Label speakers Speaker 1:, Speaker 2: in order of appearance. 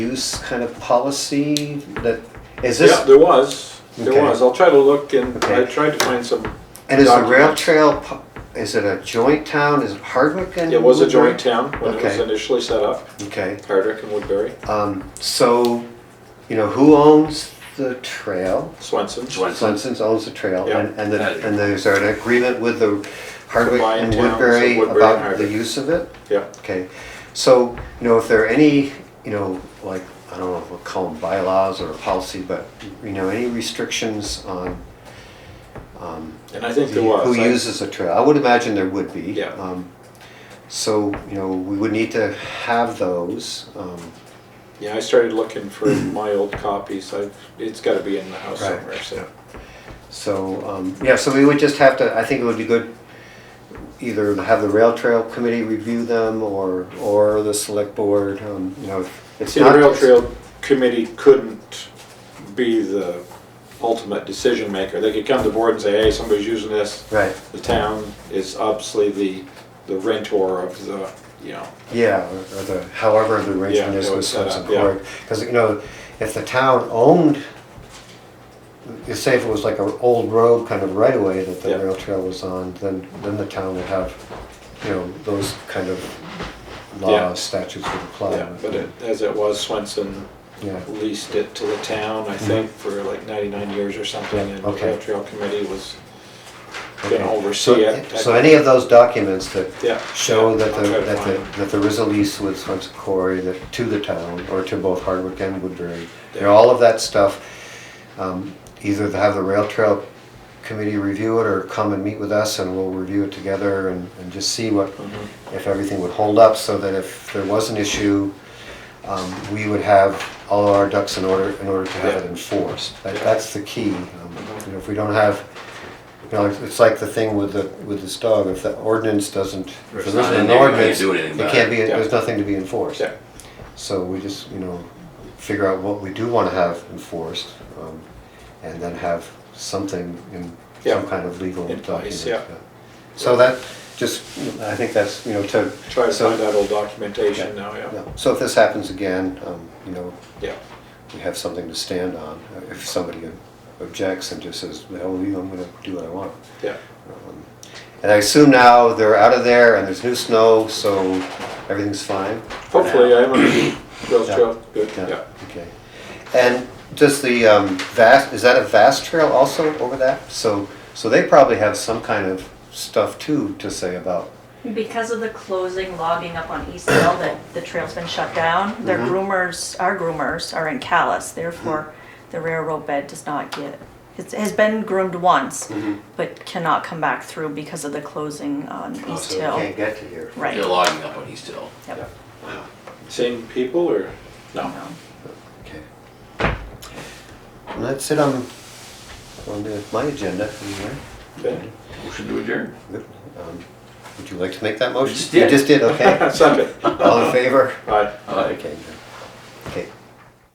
Speaker 1: use kind of policy that, is
Speaker 2: Yeah,
Speaker 1: this,
Speaker 2: there was,
Speaker 1: Okay.
Speaker 2: there was. I'll try to look and I
Speaker 1: Okay.
Speaker 2: tried to find some,
Speaker 1: and is the rail
Speaker 2: documents.
Speaker 1: trail, pu- is it a joint town, is it Hardwick and?
Speaker 2: it was a
Speaker 1: Woodbury?
Speaker 2: joint town when it was
Speaker 1: Okay.
Speaker 2: initially set up,
Speaker 1: Okay,
Speaker 2: Hardwick and Woodbury,
Speaker 1: um, so, you know, who owns the trail?
Speaker 2: Swenson.
Speaker 1: Swenson's owns the trail,
Speaker 2: Yeah.
Speaker 1: and, and the, and there's an agreement with the Hardwick
Speaker 2: Combined
Speaker 1: and
Speaker 2: towns of
Speaker 1: Woodbury
Speaker 2: Woodbury and
Speaker 1: about the
Speaker 2: Hardwick.
Speaker 1: use of it?
Speaker 2: Yeah,
Speaker 1: Okay, so, you know, if there are any, you know, like, I don't know if we'll call them bylaws or policy, but, you know, any restrictions on, um,
Speaker 2: and I think
Speaker 1: the-
Speaker 2: there was.
Speaker 1: who
Speaker 2: I-
Speaker 1: uses a trail, I would imagine there would be.
Speaker 2: Yeah.
Speaker 1: Um, So, you know, we would need to have those, um,
Speaker 2: Yeah, I started looking for my old copies. I've, it's gotta be in the house
Speaker 1: Right,
Speaker 2: somewhere, so.
Speaker 1: so, um, yeah, so we would just have to, I think it would be good, either to have the rail trail committee review them, or, or the select board, um, you know, if it's
Speaker 2: See, the
Speaker 1: not.
Speaker 2: rail trail committee couldn't be the ultimate decision maker. They could come to board and say, hey, somebody's using this.
Speaker 1: Right,
Speaker 2: The town is obviously the, the rentor of the, you know,
Speaker 1: Yeah, or or the, however the arrangement
Speaker 2: Yeah,
Speaker 1: is
Speaker 2: it
Speaker 1: with
Speaker 2: was set up,
Speaker 1: Swenson
Speaker 2: yeah.
Speaker 1: Court. Because, you know, if the town owned, you say if it was like an old road kind of right away that the
Speaker 2: Yeah.
Speaker 1: rail trail was on, then, then the town would have, you know, those kind of
Speaker 2: Yeah.
Speaker 1: laws, statutes would apply.
Speaker 2: Yeah, but it, as it was, Swenson
Speaker 1: Yeah,
Speaker 2: leased it to the town, I think, for like ninety-nine years or something,
Speaker 1: Yeah,
Speaker 2: and the
Speaker 1: Mm-hmm. okay.
Speaker 2: rail trail committee was
Speaker 1: Okay.
Speaker 2: gonna oversee it.
Speaker 1: so any of those documents that
Speaker 2: Yeah.
Speaker 1: show
Speaker 2: yeah,
Speaker 1: that
Speaker 2: I'll
Speaker 1: the,
Speaker 2: try to
Speaker 1: that
Speaker 2: find
Speaker 1: the,
Speaker 2: them.
Speaker 1: that there is a lease with Swenson Quarry that, to the town, or to both Hardwick and Woodbury. You know,
Speaker 2: Yeah.
Speaker 1: all of that stuff, um, either to have the rail trail committee review it, or come and meet with us and we'll review it together and, and just see what,
Speaker 2: Mm-hmm.
Speaker 1: if everything would hold up, so that if there was an issue, um, we would have all our ducks in order, in order to have it
Speaker 2: Yeah.
Speaker 1: enforced. That,
Speaker 2: Yeah.
Speaker 1: that's the key. Um, You know, if we don't have, you know, it's- it's like the thing with the, with this dog, if the ordinance doesn't, if
Speaker 3: If
Speaker 1: there
Speaker 3: it's not
Speaker 1: isn't
Speaker 3: in
Speaker 1: an
Speaker 3: there, you can't
Speaker 1: ordinance,
Speaker 3: do anything
Speaker 1: it
Speaker 3: about
Speaker 1: can't be,
Speaker 2: it. Yeah.
Speaker 1: there's nothing to be enforced.
Speaker 2: Yeah,
Speaker 1: So we just, you know, figure out what we do want to have enforced, um, and then have something in
Speaker 2: Yeah.
Speaker 1: some kind of legal
Speaker 2: In
Speaker 1: document.
Speaker 2: place, yeah.
Speaker 1: So that, just, I think that's, you know, to.
Speaker 2: try to
Speaker 1: so-
Speaker 2: find that old documentation
Speaker 1: Yeah.
Speaker 2: now, yeah,
Speaker 1: yeah. So if this happens again, um, you know,
Speaker 2: yeah,
Speaker 1: we have something to stand on. uh, If somebody objects and just says, well, you know, I'm gonna do what I want.
Speaker 2: yeah.
Speaker 1: Um, And I assume now they're out of there and there's new snow, so everything's fine?
Speaker 2: Hopefully, I'm on the rail
Speaker 1: Yeah.
Speaker 2: trail, good, yeah.
Speaker 1: Okay. And does the um, vast, is that a vast trail also over that? So, so they probably have some kind of stuff too to say about,
Speaker 4: Because of the closing logging up on East Hill, that the trail's been shut down, their groomers, our groomers are in Callis, therefore the railroad bed does not get, it has been groomed once, but cannot come back through because of the closing on East
Speaker 1: oh, so they
Speaker 4: Hill.
Speaker 1: can't get to here.
Speaker 3: You're
Speaker 4: Right.
Speaker 3: logging up on East Hill.
Speaker 4: Yep.
Speaker 2: Same people, or? No.
Speaker 1: Okay. And that's it on, on the- my agenda anyway.
Speaker 2: Okay.
Speaker 3: Motion to adjourn.
Speaker 1: Good. Um, Would you like to make that motion?
Speaker 3: just
Speaker 1: You
Speaker 3: did.
Speaker 1: just did, okay.
Speaker 2: Second,
Speaker 1: All in favor?
Speaker 2: aye.
Speaker 3: Aye.
Speaker 1: Okay. good.